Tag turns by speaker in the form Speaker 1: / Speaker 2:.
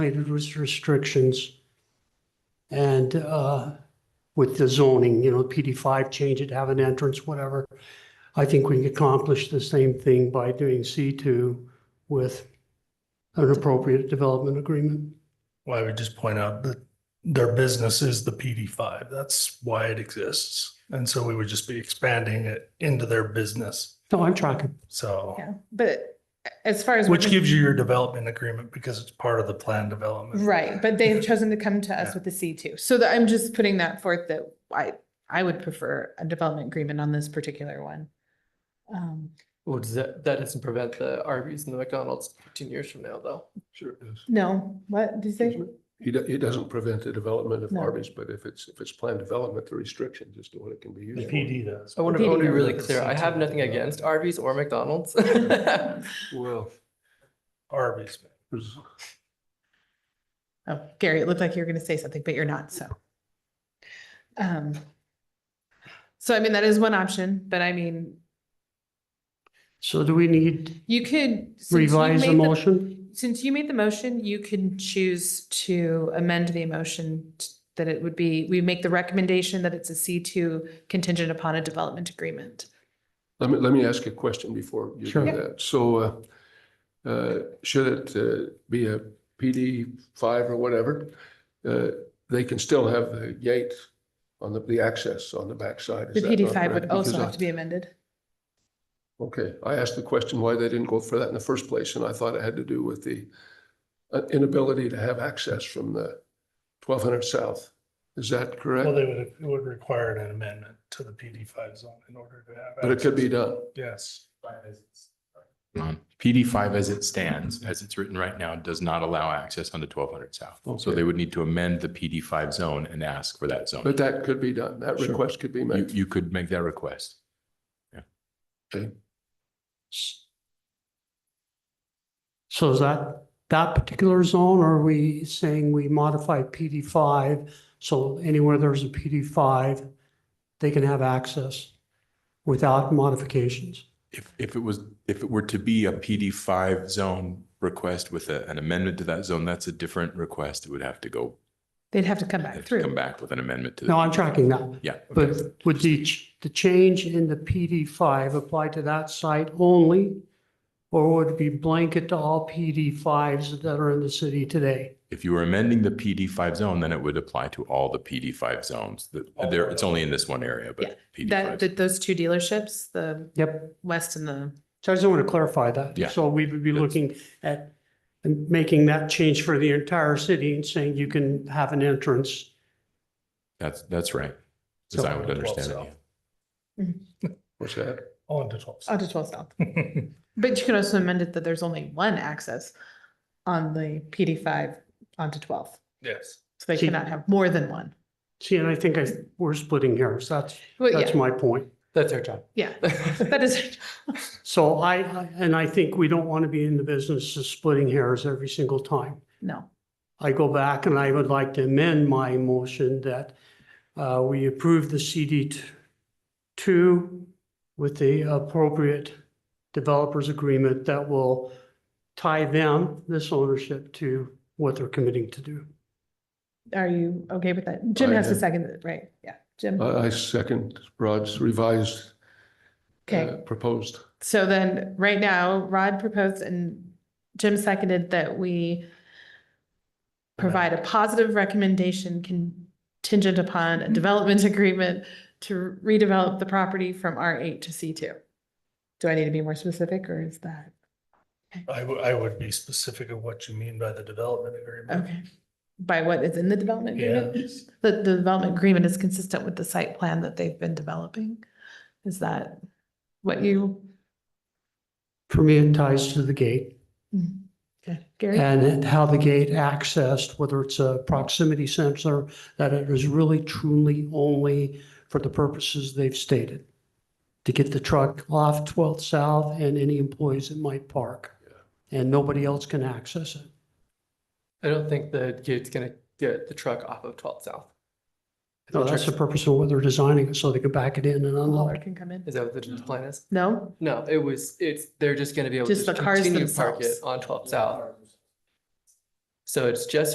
Speaker 1: related with restrictions and uh, with the zoning, you know, PD5 change it, have an entrance, whatever. I think we can accomplish the same thing by doing C2 with an appropriate development agreement.
Speaker 2: Well, I would just point out that their business is the PD five. That's why it exists. And so we would just be expanding it into their business.
Speaker 1: No, I'm tracking.
Speaker 2: So,
Speaker 3: Yeah, but as far as.
Speaker 2: which
Speaker 3: what-
Speaker 2: gives you your development agreement because it's part of the plan development.
Speaker 3: Right, but they have chosen to come to us
Speaker 2: Yeah.
Speaker 3: with the C two. So that I'm just putting that forth that I, I would prefer a development agreement on this particular one. Um,
Speaker 4: Well, does that, that doesn't prevent the Arby's and the McDonald's fifteen years from now, though.
Speaker 5: Sure it is.
Speaker 3: no, what did you say?
Speaker 5: Excuse me? He, do- he doesn't prevent the development of
Speaker 3: No.
Speaker 5: Arby's, but if it's, if it's planned development, the restrictions as to what it can be
Speaker 2: The
Speaker 5: used for.
Speaker 2: PD does.
Speaker 4: I want
Speaker 3: PD
Speaker 4: to, I want to be
Speaker 3: doesn't
Speaker 4: really
Speaker 2: have the
Speaker 4: clear. I have
Speaker 2: C2
Speaker 4: nothing
Speaker 2: development.
Speaker 4: against Arby's or McDonald's. I
Speaker 5: Well,
Speaker 2: Arby's.
Speaker 5: there's-
Speaker 3: Oh, Gary, it looked like you were gonna say something, but you're not, so. Um. So I mean, that is one option, but I mean,
Speaker 1: So do we need
Speaker 3: you could. since you
Speaker 1: revise the
Speaker 3: made
Speaker 1: motion?
Speaker 3: Since you made the motion, you can choose to amend the motion t- that it would be, we make the recommendation that it's a C two contingent upon a development agreement.
Speaker 5: Let me, let me ask you a question before you
Speaker 1: Sure.
Speaker 5: do that. So, uh, uh, should it, uh, be a PD five or whatever? Uh, they can still have the gate on the, the access on the backside.
Speaker 3: The
Speaker 5: is that
Speaker 3: PD
Speaker 5: not
Speaker 3: five would
Speaker 5: correct?
Speaker 3: also
Speaker 5: Because I-
Speaker 3: have to be amended.
Speaker 5: Okay, I asked the question why they didn't go for that in the first place, and I thought it had to do with the uh, inability to have access from the twelve hundred south. Is that
Speaker 2: Well,
Speaker 5: correct?
Speaker 2: they would, it would require an amendment to the PD five zone in order to have.
Speaker 5: But it could be
Speaker 2: access.
Speaker 5: done.
Speaker 2: Yes.
Speaker 6: Um, PD five as it stands, as it's written right now, does not allow access onto twelve hundred south. So
Speaker 5: Okay.
Speaker 6: they would need to amend the PD five zone and ask for that zone.
Speaker 5: But that could be done. That
Speaker 6: Sure.
Speaker 5: request could be
Speaker 6: You,
Speaker 5: made.
Speaker 6: you could make that request.
Speaker 1: So is that, that particular zone, or are we saying we modify PD five? So anywhere there's a PD five, they can have access without modifications?
Speaker 6: If, if it was, if it were to be a PD five zone request with a- an amendment to that zone, that's a different request. It would have to go,
Speaker 3: They'd have to come back
Speaker 6: have to come
Speaker 3: through.
Speaker 6: back with an amendment to. the-
Speaker 1: No, I'm tracking that.
Speaker 6: Yeah. okay.
Speaker 1: But would the, ch- the change in the PD five apply to that site only? Or would it be blanket to all PD fives that are in the city today?
Speaker 6: If you were amending the PD five zone, then it would apply to all the PD five zones. The- There, it's only in this one area,
Speaker 3: Yeah,
Speaker 6: but. PD
Speaker 3: That,
Speaker 6: five.
Speaker 3: that those two dealerships, the
Speaker 1: Yep,
Speaker 3: west and the,
Speaker 1: so I just want to clarify that.
Speaker 6: Yeah.
Speaker 1: So we would be looking at and making that change for the entire city and saying you can have an entrance.
Speaker 6: That's, that's right. As I would
Speaker 2: Twelve
Speaker 6: understand it.
Speaker 2: south.
Speaker 6: yeah.
Speaker 5: What's that?
Speaker 2: On to twelve.
Speaker 3: oh, to twelve south.
Speaker 2: south.
Speaker 3: But you can also amend it that there's only one access on the PD five onto twelve.
Speaker 2: Yes.
Speaker 3: So they
Speaker 1: See-
Speaker 3: cannot have more than one.
Speaker 1: See, and I think I, we're splitting hairs. That's,
Speaker 3: Well,
Speaker 1: that's
Speaker 3: yeah,
Speaker 1: my point.
Speaker 4: That's our job.
Speaker 3: yeah, that is.
Speaker 1: So I, I- and I think we don't want to be in the business of splitting hairs every single time.
Speaker 3: No,
Speaker 1: I go back and I would like to amend my motion that uh, we approve the CD t- two with the appropriate developers agreement that will tie them, this ownership, to what they're committing to do.
Speaker 3: are you okay with that? Jim
Speaker 5: I
Speaker 3: has to
Speaker 5: am. Uh,
Speaker 3: second it, right? Yeah, Jim.
Speaker 5: I, I second Rod's revised, uh,
Speaker 3: Okay,
Speaker 5: proposed.
Speaker 3: so then right now Rod proposed and Jim seconded that we provide a positive recommendation contingent upon a development agreement to redevelop the property from R eight to C two. Do I need to be more specific or is that?
Speaker 2: I would, I would be specific of what you mean by the development agreement.
Speaker 3: Okay. By what is in the development agreement?
Speaker 2: Yeah.
Speaker 3: That the development agreement is consistent with the site plan that they've been developing? Is that what you?
Speaker 1: For me, it ties to the gate
Speaker 3: Hmm. Okay, Gary?
Speaker 1: and how the gate accessed, whether it's a proximity sensor, that it is really truly only for the purposes they've stated. To get the truck off 12th South and any employees that might park. And nobody else can access it.
Speaker 4: I don't think the gate's gonna get the truck off of twelve south. I
Speaker 1: No,
Speaker 4: think
Speaker 1: that's the
Speaker 4: trucks-
Speaker 1: purpose of what they're designing, it, so they can back it in and
Speaker 3: Lord
Speaker 1: unload.
Speaker 3: can come in.
Speaker 4: Is that what the plan is?
Speaker 3: No?
Speaker 4: No, it was, it's, they're just gonna be able to
Speaker 3: Just
Speaker 4: just
Speaker 3: the cars
Speaker 4: continue to park it
Speaker 3: themselves.
Speaker 4: on twelve south. So it's just